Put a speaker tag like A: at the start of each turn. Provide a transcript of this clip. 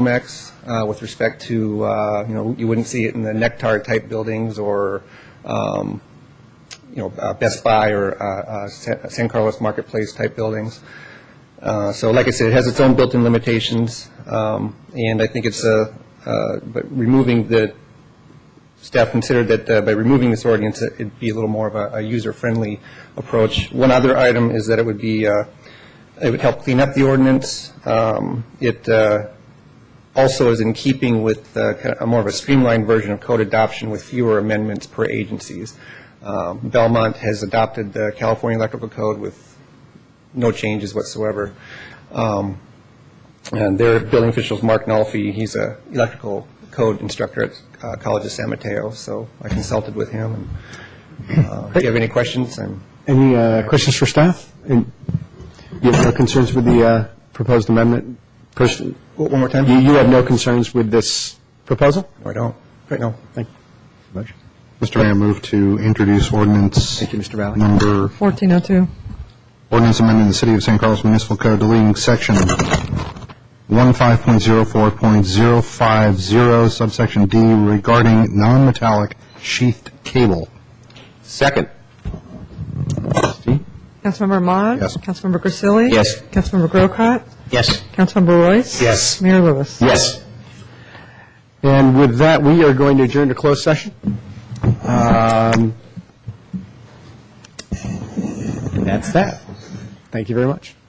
A: Romex uh, with respect to, uh, you know, you wouldn't see it in the Nectar-type buildings or, um, you know, uh, Best Buy or uh, uh, San San Carlos Marketplace-type buildings. Uh, So like I said, it has its own built-in limitations, um, and I think it's, uh, uh, but removing the, staff considered that uh, by removing this ordinance, it- it'd be a little more of a a user-friendly approach. One other item is that it would be, uh, it would help clean up the ordinance. Um, It uh, also is in keeping with uh, kind of a more of a streamlined version of code adoption with fewer amendments per agencies. Um, Belmont has adopted the California Electrical Code with no changes whatsoever. Um, and their building officials, Mark Nolfe, he's a electrical code instructor at uh, College of San Mateo, so I consulted with him. And, uh, If you have any questions, I'm,
B: Any uh, questions for staff? And you have no concerns with the uh, proposed amendment? Person,
A: oh, one more time?
B: you you have no concerns with this proposal?
A: No, I don't. Right, no.
B: Thank you.
C: Mr. Mayor, move to introduce ordinance.
B: Thank you, Mr. Valley.
C: Number,
D: 1402.
C: ordinance amending the City of St. Carlos Municipal Code deleting section 15.04.050 subsection D regarding non-metallic sheathed cable.
E: Second.
D: Councilmember Mod.
C: Yes.
D: Councilmember Grisilli.
E: Yes.
D: Councilmember Grocott.
E: Yes.
D: Councilmember Royce.
E: Yes.
D: Mayor Lewis.
E: Yes.
B: And with that, we are going to adjourn to closed session. Um,
E: That's that.
B: Thank you very much.